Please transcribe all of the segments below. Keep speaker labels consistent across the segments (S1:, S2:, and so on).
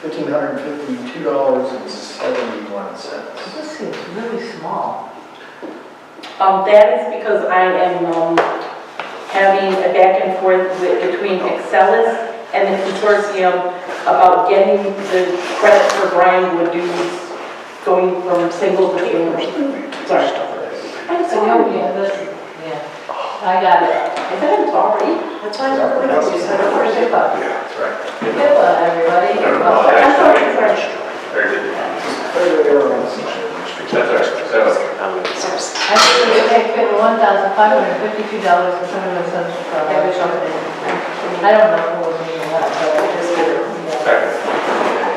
S1: fifteen hundred fifty-two dollars and seventy-one cents.
S2: This seems really small.
S3: Um, that is because I am, um, having a back and forth with, between Excelis and the consortium about getting the credit for Brian Wood dues going from single to family. Sorry. I'm sorry.
S2: yeah, this, yeah. I got it.
S3: I said I'm sorry.
S2: That's why I never heard of it. You said it was HIPAA.
S1: That's right.
S2: HIPAA, everybody.
S4: Never
S2: Oh,
S4: mind.
S3: I'm sorry, I'm sorry.
S4: Very good.
S1: Further errors.
S4: That's all right. That was good. Um,
S2: I think we take one thousand five hundred fifty-two dollars and seventy-one cents for our
S3: That was
S2: I don't know who was meaning that, but it is good.
S4: Second.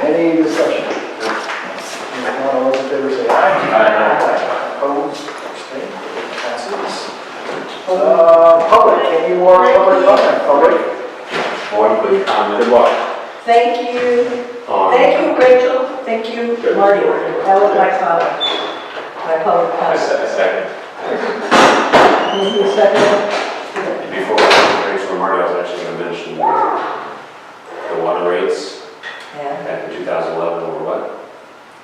S1: Any discussion? If not, all those in favor say aye. Aye. Opposed, abstained, passes. Uh, public, can you warn public comment? Public?
S4: One quick comment. Good luck.
S3: Thank you. Thank you, Rachel. Thank you, Marty.
S2: That was my comment, my public
S4: A
S2: comment.
S4: se- a second.
S2: Can you second?
S4: Before Rachel Marty, I was actually going to mention the water rates
S2: Yeah,
S4: back in 2011 were what?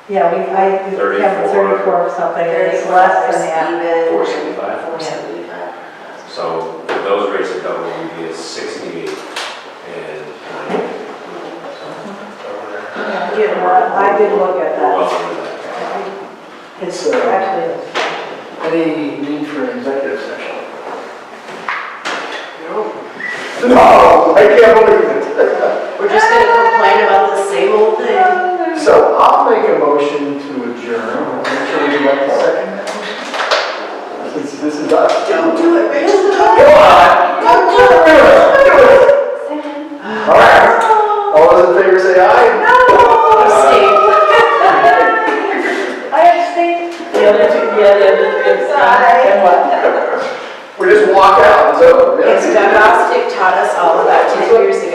S2: yeah, we, I, we have
S4: 34.
S2: thirty-four or something, it's less than that.
S5: Even.
S4: 475? So if those rates are double, we'd be at 68. And um,
S2: Yeah, well, I did look at
S4: we're
S2: that.
S4: well under that.
S2: It's actually,
S1: uh, Any need for an executive session? No, I can't believe it.
S5: We're just gonna complain about the same old thing.
S1: So I'll make a motion to adjourn. Make sure we get a second. Since this is us.
S5: Don't do it, Rachel.
S1: Come on! Don't do it! Do it! All right. All those in favor say aye.
S2: I abstained.
S3: The other two, yeah, the other two. And what?
S1: We just walk out, it's over.
S5: Yes,
S1: Yeah.
S5: Bob Rostick taught us all about 10 years ago.